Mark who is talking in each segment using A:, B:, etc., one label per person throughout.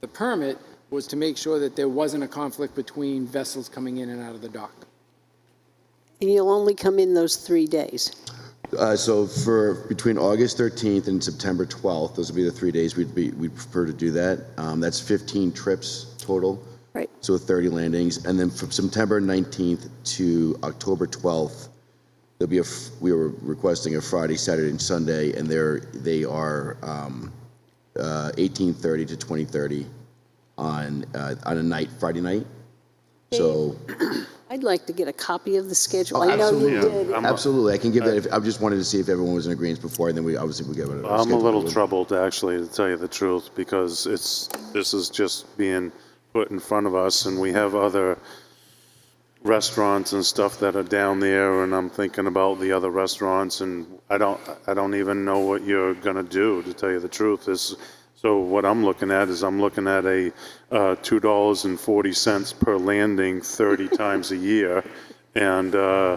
A: The permit was to make sure that there wasn't a conflict between vessels coming in and out of the dock.
B: And you'll only come in those three days.
C: Uh, So for, between August 13th and September 12th, those would be the three days we'd be, we'd prefer to do that. Um, That's 15 trips total.
B: Right.
C: So 30 landings. And then from September 19th to October 12th, there'll be a, f- we were requesting a Friday, Saturday, and Sunday, and they're, they are um, uh, 18:30 to 20:30 on, uh, on a night, Friday night. So
B: I'd like to get a copy of the schedule.
C: Oh,
B: I know you
C: absolutely.
B: did.
D: I'm-
C: Absolutely, I can give that, if- I just wanted to see if everyone was in agreement before, and then we, obviously, we get it.
D: I'm a little troubled, actually, to tell you the truth, because it's, this is just being put in front of us, and we have other restaurants and stuff that are down there, and I'm thinking about the other restaurants, and I don't, I don't even know what you're gonna do, to tell you the truth. This, so what I'm looking at is I'm looking at a, uh, two dollars and forty cents per landing thirty times a year, and, uh,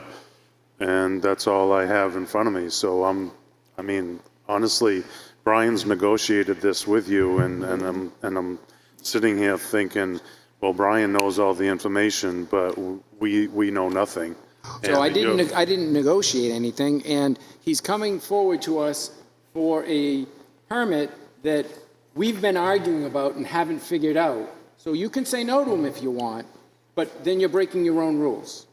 D: and that's all I have in front of me. So I'm, I mean, honestly, Brian's negotiated this with you, and, and I'm, and I'm sitting here thinking, well, Brian knows all the information, but we, we know nothing.
A: So I
D: And, you know,
A: didn't, I didn't negotiate anything, and he's coming forward to us for a permit that we've been arguing about and haven't figured out. So you can say no to him if you want, but then you're breaking your own rules.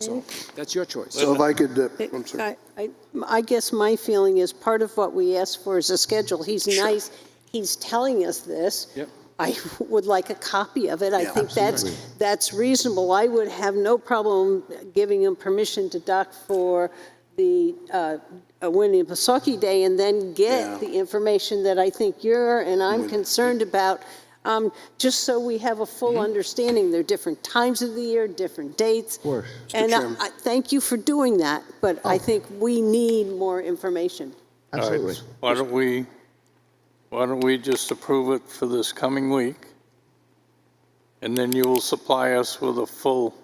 A: So that's your choice.
E: So if I could, uh, I'm sorry.
B: I, I- I guess my feeling is part of what we asked for is a schedule. He's nice, he's telling us this.
A: Yep.
B: I would like a copy of it. I
E: Yeah,
B: think that's, that's reasonable. I would have no problem giving him permission to dock for the uh, uh, Winnie Pasaki Day and then
E: Yeah.
B: get the information that I think you're and I'm concerned about, um, just so we have a full understanding. There are different times of the year, different dates. Of course. And I-
E: Chairman.
B: I, thank you for doing that, but I think we need more information.
C: Absolutely.
F: Why don't we, why don't we just approve it for this coming week? And then you will supply us with a full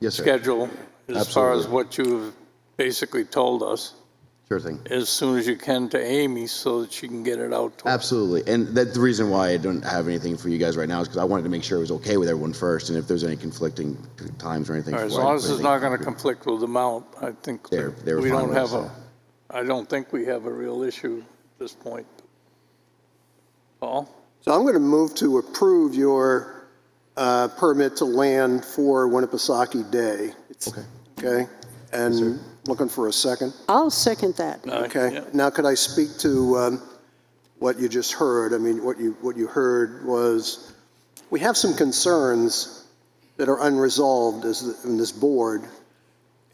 C: Yes, sir.
F: schedule as far as
C: Absolutely.
F: what you've basically told us
C: Sure thing.
F: as soon as you can to Amy so that she can get it out to us.
C: Absolutely. And that, the reason why I don't have anything for you guys right now is because I wanted to make sure it was okay with everyone first, and if there's any conflicting times or anything.
F: As
C: why-
F: long as it's
C: anything-
F: not going to conflict with the amount, I think
C: They were-
F: that
C: they were
F: we
C: fine
F: don't
C: with
F: have
C: it,
F: a, I don't think we have a real issue at this point. Paul?
E: So I'm going to move to approve your uh, permit to land for Winnipesaukee Day. Okay. Okay? And looking for a second.
B: I'll second that.
F: Aye,
E: Okay.
F: yeah.
E: Now, could I speak to um, what you just heard? I mean, what you, what you heard was, we have some concerns that are unresolved as, the- in this board,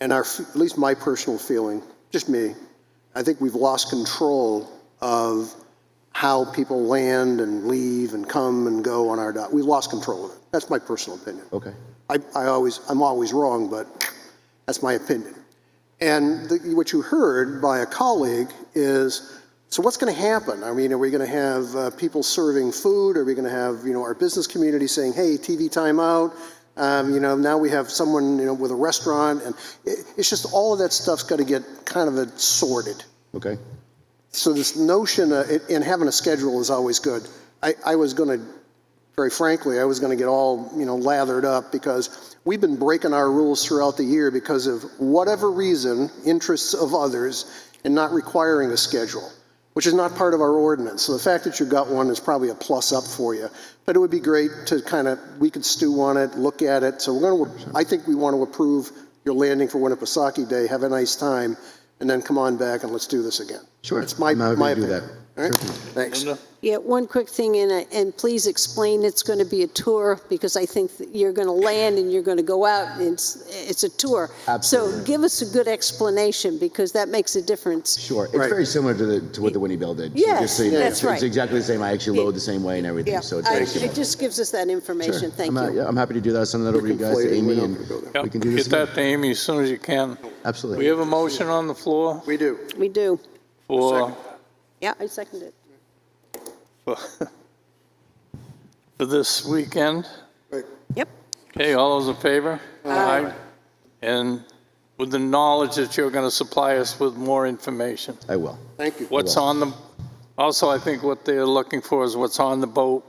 E: and our, f- at least my personal feeling, just me, I think we've lost control of how people land and leave and come and go on our dock. We've lost control of it. That's my personal opinion.
C: Okay.
E: I, I always, I'm always wrong, but that's my opinion. And the, what you heard by a colleague is, so what's going to happen? I mean, are we going to have uh, people serving food? Are we going to have, you know, our business community saying, hey, TV timeout? Um, you know, now we have someone, you know, with a restaurant, and it, it's just all of that stuff's got to get kind of uh, sorted.
C: Okay.
E: So this notion, uh, it- and having a schedule is always good. I, I was going to, very frankly, I was going to get all, you know, lathered up because we've been breaking our rules throughout the year because of whatever reason, interests of others, and not requiring a schedule, which is not part of our ordinance. So the fact that you got one is probably a plus up for you. But it would be great to kind of, we could stew on it, look at it. So we're going to, I think we want to approve your landing for Winnipesaukee Day. Have a nice time, and then come on back and let's do this again.
C: Sure.
E: It's my,
C: I'm happy to
E: my
C: do
E: opinion.
C: that.
E: All right?
C: Sure.
E: Thanks.
F: Linda?
B: Yeah, one quick thing, and, I- and please explain it's going to be a tour, because I think that you're going to land and you're going to go out, and it's, it's a tour.
C: Absolutely.
B: So give us a good explanation, because that makes a difference.
C: Sure. It's
E: Right.
C: very similar to the, to what the Winnie Bell did. So
B: Yes,
C: just so you know,
B: that's
C: it's-
B: right.
C: It's exactly the same. I actually load the same way and everything,
B: Yeah,
C: so it's
B: I-
C: very
B: it
C: similar.
B: just gives us that information,
C: Sure.
B: thank
C: I'm, uh,
B: you.
C: yeah, I'm happy to do that. I'll Send that over to you guys, to
E: conflating, we're
C: Amy,
E: not
C: and
E: gonna go there.
F: Yeah,
C: we can do this.
F: Get that to Amy as soon as you can.
C: Absolutely.
F: We have a motion on the floor
E: We do.
B: We do.
F: for,
B: Yeah, I second it.
F: for for this weekend.
B: Yep.
F: Okay, all those in favor? Aye. And with the knowledge that you're going to supply us with more information.
C: I will.
E: Thank you.
F: What's on the, also, I think what they're looking for is what's on the boat